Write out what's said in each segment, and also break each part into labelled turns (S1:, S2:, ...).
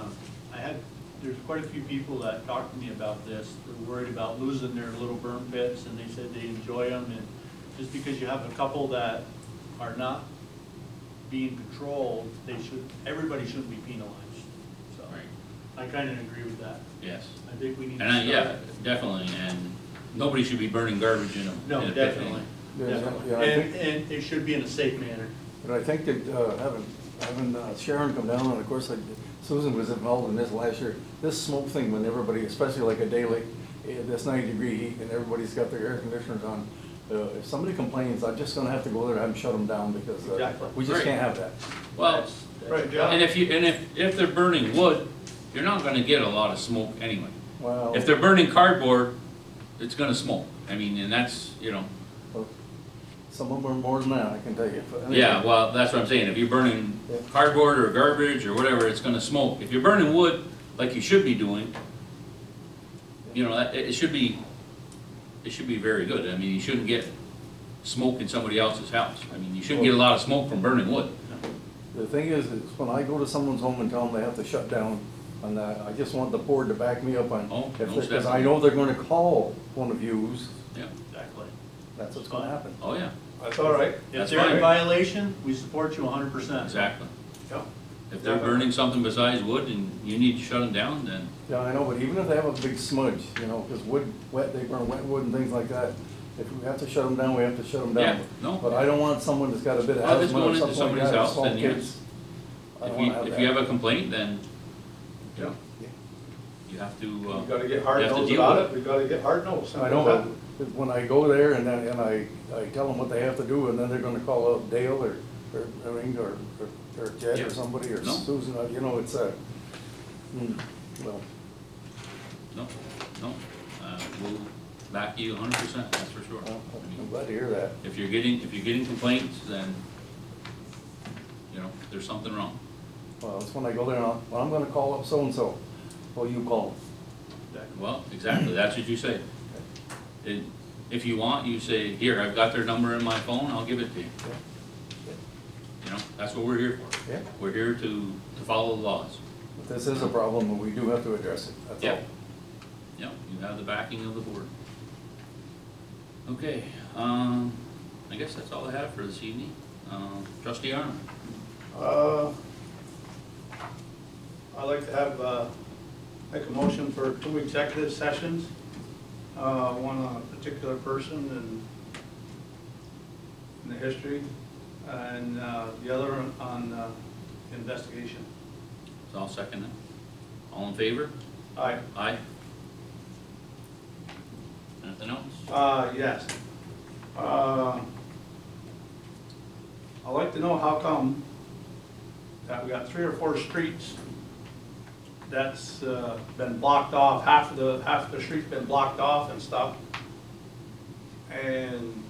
S1: Um, there's quite a few people that talked to me about this. They're worried about losing their little burn pits, and they said they enjoy them, and just because you have a couple that are not being controlled, they should, everybody shouldn't be penalized, so.
S2: Right.
S1: I kind of agree with that.
S2: Yes.
S1: I think we need
S2: And,
S1: to
S2: I-
S1: start.
S2: yeah, definitely, and nobody should be burning garbage in a,
S1: No,
S2: in a pit
S1: definitely,
S3: Yeah,
S1: definitely.
S3: yeah, I
S1: And,
S3: think-
S1: and it should be in a safe manner.
S3: But I think that uh, having, having uh, Sharon come down, and of course, like, Susan was involved in this last year, this smoke thing when everybody, especially like a day like, eh, that's ninety degree heat and everybody's got their air conditioners on. uh, If somebody complains, I'm just gonna have to go there and have them shut them down because uh,
S1: Exactly.
S3: we just
S2: Right.
S3: can't have that.
S2: Well,
S1: That's- that's-
S4: Right, yeah.
S2: and if you, and if, if they're burning wood, you're not gonna get a lot of smoke anyway.
S3: Well,
S2: If they're burning cardboard, it's gonna smoke, I mean, and that's, you know,
S3: oh, some of them are more than that, I can tell you. But anyway,
S2: yeah, well, that's what I'm saying, if you're burning
S3: Yeah.
S2: cardboard or garbage or whatever, it's gonna smoke. If you're burning wood, like you should be doing, you know, that, it, it should be, it should be very good, I mean, you shouldn't get smoke in somebody else's house. I mean, you shouldn't get a lot of smoke from burning wood.
S3: The thing is, is when I go to someone's home and tell them they have to shut down on that, I just want the board to back me up on.
S2: Oh,
S3: if they-
S2: most
S3: Cause I know they're gonna call one of yous,
S2: Yeah,
S1: Exactly.
S3: that's what's gonna happen.
S2: oh, yeah,
S4: That's all right.
S1: If
S2: That's
S1: they're in
S2: fine.
S1: violation, we support you hundred percent.
S2: exactly.
S4: Yep.
S2: If they're burning something besides wood and you need to shut them down, then,
S3: Yeah, I know, but even if they have a big smudge, you know, because wood, wet, they burn wet wood and things like that. If we have to shut them down, we have to shut them down.
S2: Yeah, no.
S3: But I don't want someone that's got a bit of
S2: Well, if it's
S3: asthma
S2: going
S3: or
S2: into
S3: something like
S2: somebody's
S3: that, or
S2: house,
S3: small
S2: then yes.
S3: kids. I
S2: if
S3: don't
S2: you,
S3: wanna
S2: if you
S3: that.
S2: have a complaint, then, you know,
S3: Yeah.
S2: you have to,
S4: We
S2: uh,
S4: gotta get hard
S2: You have to
S4: nosed
S2: deal
S4: about
S2: with
S4: it, we gotta get hard nosed.
S3: I know, but when I go there and I, and I, I tell them what they have to do, and then they're gonna call up Dale or, or, I mean, or, or- or Jed
S2: Yeah.
S3: or somebody, or
S2: No.
S3: Susan, uh, you know, it's a, hmm, well,
S2: no, no, uh, we'll back you hundred percent, that's for sure.
S3: well,
S2: I mean,
S3: I'm glad to hear that.
S2: If you're getting, if you're getting complaints, then, you know, there's something wrong.
S3: Well, it's when I go there, and I'll- well, I'm gonna call up so-and-so, well, you call 'em.
S2: Well, exactly, that's what you say. And if you want, you say, here, I've got their number in my phone, I'll give it to you. You know, that's what we're here for.
S3: Yeah.
S2: We're here to, to follow the laws.
S3: But This is a problem, and we do have to address it, that's
S2: Yeah.
S3: all.
S2: Yeah, you have the backing of the board. Okay, um, I guess that's all I have for this evening. Um, trustee Arnold,
S4: Uh, I'd like to have, uh, make a motion for two executive sessions, uh, one on a particular person and in the history, and, uh, the other on, uh, investigation.
S2: so I'll second that. All in favor?
S4: Aye.
S2: Aye. Anything else?
S4: Uh, yes. Uh, I'd like to know how come that we got three or four streets that's uh, been blocked off, half of the, half of the street's been blocked off and stuff. And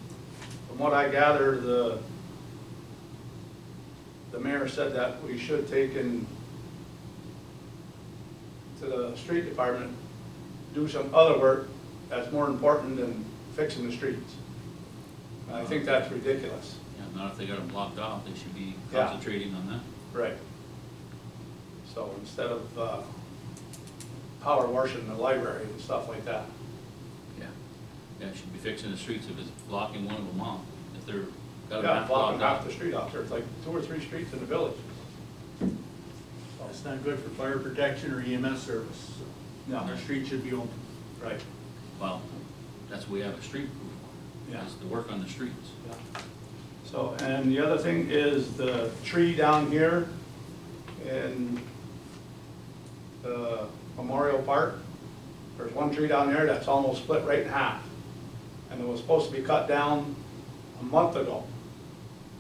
S4: from what I gather, the, the mayor said that we should take and to the street department, do some other work that's more important than fixing the streets. And I think that's ridiculous.
S2: Yeah, not if they got them blocked off, they should be
S4: Yeah.
S2: concentrating on that.
S4: Right. So instead of, uh, power washing the library and stuff like that.
S2: Yeah. Yeah, it should be fixing the streets if it's blocking one of them off, if they're, got them
S4: Yeah,
S2: half
S4: blocking
S2: blocked off.
S4: half the street out there, it's like two or three streets in the village.
S1: It's not good for fire protection or EMS service.
S4: No.
S1: Our street should be open.
S4: Right.
S2: Well, that's what we have a street crew for,
S4: Yeah.
S2: is to work on the streets.
S4: Yeah. So, and the other thing is the tree down here in the Memorial Park. There's one tree down there that's almost split right in half. And it was supposed to be cut down a month ago.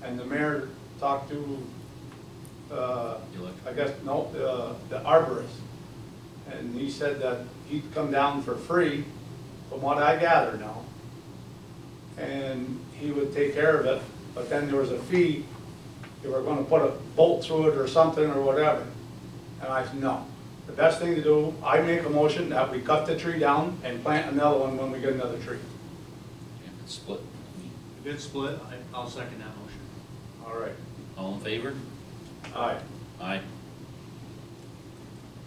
S4: And the mayor talked to, uh,
S2: The electric-
S4: I guess, no, uh, the arborist. And he said that he'd come down for free, from what I gather now and he would take care of it, but then there was a fee, they were gonna put a bolt through it or something or whatever. And I said, no, the best thing to do, I make a motion that we cut the tree down and plant another one when we get another tree.
S2: Yeah, it's split. I mean,
S1: If it's split, I- I'll second that motion.
S4: All right,
S2: All in favor?
S4: all right.
S2: Aye.